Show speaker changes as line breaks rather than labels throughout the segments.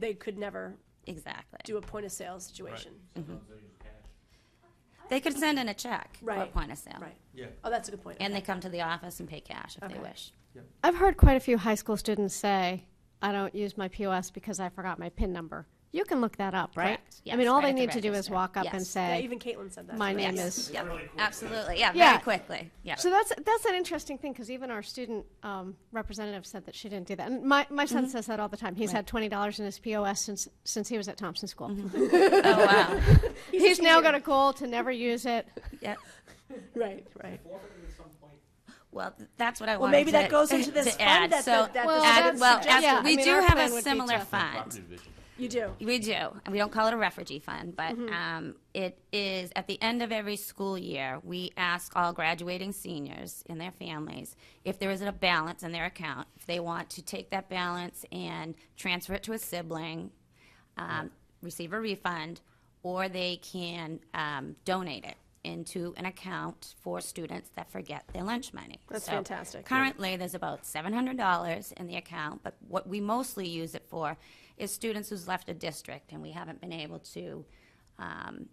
they could never
Exactly.
do a point of sale situation.
They could send in a check or a
Right.
point of sale.
Right.
Yeah.
Oh, that's a good point.
And they
Okay.
come to the office and pay cash if they
Okay.
wish.
I've heard quite a few high school students say, I don't use my POS because I forgot my PIN number. You can look that up, right?
Correct.
I
Yes,
mean, all
right
they
at the
need to do is
register.
walk up and
Yes.
Yeah,
say,
even Caitlin said that.
my name
Yes.
is.
Yep. Absolutely. Yeah,
Yeah.
very quickly. Yeah.
So that's, that's an interesting thing, because even our student um, representative said that she didn't do that. And my, my son
Mm-hmm.
says that all the time. He's had twenty dollars in his POS since, since he was at Thompson School.
oh, wow.
He's now got a goal to never use it.
Yep.
Right, right.
Well, th- that's what I
Well,
wanted
maybe
to,
that goes into
to
this fund
add.
that-
so,
that- that
Well,
add-
that's-
well, absolutely.
yeah, I
we
mean,
do
our
have
plan
a
would be
similar
to-
fund.
You do.
We do. And We don't call it a refugee fund, but um, it is at the end of every school year, we ask all graduating seniors and their families if there is a balance in their account, if they want to take that balance and transfer it to a sibling, um, receive a refund, or they can um, donate it into an account for students that forget their lunch money.
That's
So
fantastic.
Currently, there's about $700 in the account, but what we mostly use it for is students who's left a district and we haven't been able to, um,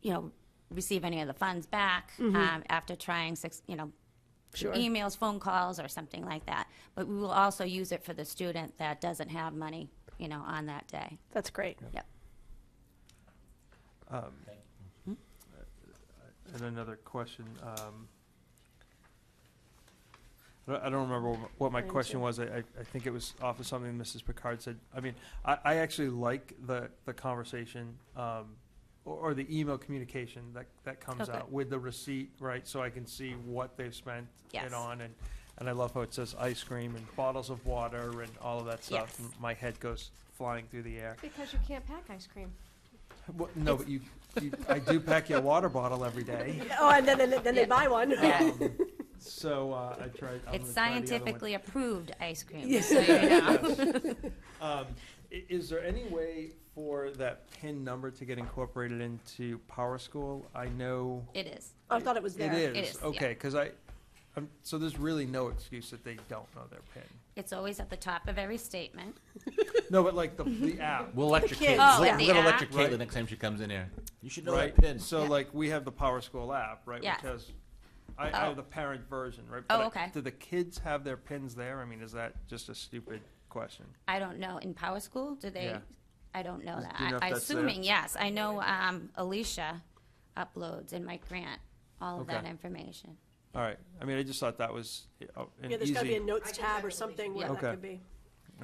you know, receive any of the funds back um, after trying six, you know, through
Mm-hmm. Sure.
emails, phone calls, or something like that. But we will also use it for the student that doesn't have money, you know, on that day.
That's great.
Yep.
And another question, um, I don't- I don't remember wh- what my
I do
question
too.
was. I, I, I think it was off of something Mrs. Picard said. I mean, I, I actually like the, the conversation, um, or, or the email communication that, that comes
Okay.
out with the receipt, right? So I can see what they've spent
Yes.
it on and, and I love how it says ice cream and bottles of water and all of that stuff.
Yes.
M- My head goes flying through the air.
Because you can't pack ice cream.
Well, no, but you, you, I do pack your water bottle every day.
Oh, and then, then, then they buy one.
Yeah.
Um, So uh, I tried. I'm
It's
gonna try the other one.
scientifically approved ice cream. so you know.
Um, i- is there any way for that PIN number to get incorporated into Power School? I know
It is.
I thought it was there.
it is.
It is, yeah.
okay, because I, I'm, so there's really no excuse that they don't know their PIN.
It's always at the top of every statement.
No, but like the the app.
We'll let your
kids.
Caitlin.
Oh,
we're
and the
gonna let your
app.
Caitlin
Right.
next time she comes in here. You should know
Right,
that pin.
so like, we have the Power School app, right,
Yes.
which has, I, I
Oh.
have the parent version, right?
Oh,
but I-
okay.
Do the kids have their pins there? I mean, is that just a stupid question?
I don't know. In Power School, do they?
Yeah.
I don't know that.
do you know if
I,
that's there?
assuming yes. I know um, Alicia uploads and Mike Grant all of
Okay.
that information.
All right, I mean, I just thought that was uh, an
Yeah, there's
easy.
gotta be a notes tab or something where
Yeah.
that
Okay.
could be.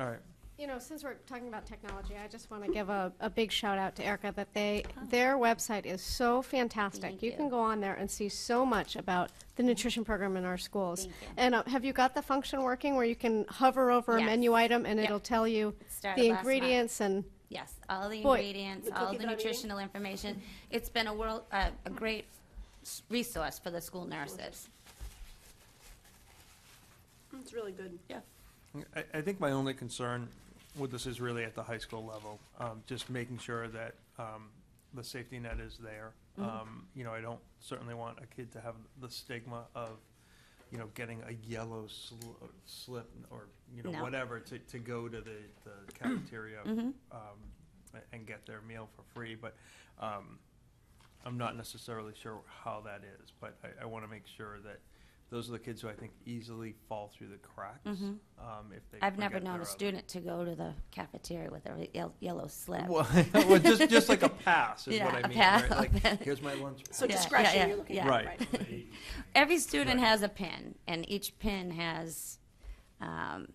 All right.
You know, since we're talking about technology, I just want to give a, a big shout out to Erica that they, their website is so fantastic.
Thank
You
you.
can go on there and see so much about the nutrition program in our schools.
Thank you.
And uh, have you got the function working where you can hover over a
Yes.
menu item and
Yep.
it'll tell you
started
the
last month.
ingredients and,
Yes, all the
Boy,
ingredients,
the
all
cookie
the
that I'm eating?
nutritional information. It's been a world, uh, a great s- resource for the school nurses.
It's really good.
Yeah.
I, I think my only concern with this is really at the high school level, um, just making sure that, um, the safety net is there.
Mm-hmm.
Um, you know, I don't certainly want a kid to have the stigma of, you know, getting a yellow sl- slip or, you know,
No.
whatever to, to go to the, the cafeteria, um, a- and get their meal for free, but, um, I'm not necessarily sure how that is, but I, I wanna make sure that those are the kids who I think easily fall through the cracks, um, if they.
Mm-hmm. I've never
forget
known
their
a
other-
student to go to the cafeteria with a yel- yellow slip.
well, well, just just like a pass is what
Yeah,
I
a
mean. Right?
pass.
Like, here's my lunch.
So
Yeah, yeah,
discretion,
yeah,
you're looking
yeah.
at,
Right.
right?
Every student has a pin, and each pin has um,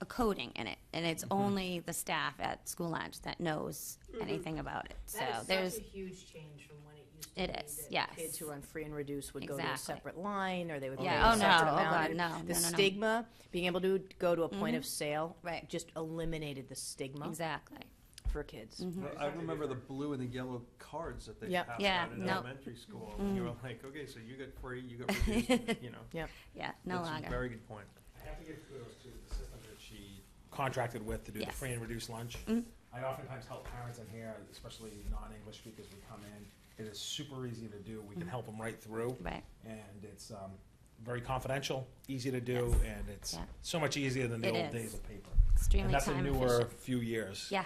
a coding in it, and it's only the staff at school lunch that knows anything about it. So
That is
there's
such a huge change from when it used to
It
be
is,
that
yes.
Kids who were on free and reduced would go to a
Exactly.
separate line, or they would pay
Yeah,
a
oh,
separate
no, oh,
amount.
God, no, no,
The
no, no.
stigma, being able to go to a point of sale.
Right.
Just eliminated the stigma
exactly.
for kids.
Mm-hmm.
Well, I remember the blue and the yellow cards that they
Yep.
passed
Yeah,
out in
no. Mm.
elementary school. And you were like, okay, so you get free, you get reduced, and, you know.
Yep.
Yeah, no
that's a
longer.
Very good point.
I have to give kudos to the system that she contracted with to do the
Yes. Mm-hmm.
free and reduced lunch. I oftentimes help parents in here, especially non-English speakers, we come in. It is super easy to do. We can help them right through.
Mm-hmm. Right.
And it's um, very confidential, easy to do,
Yes.
and it's
Yeah.
so much easier than the
It
old
is.
days of paper.
Extremely
And that's a
time
newer
efficient.
few years.
Yeah,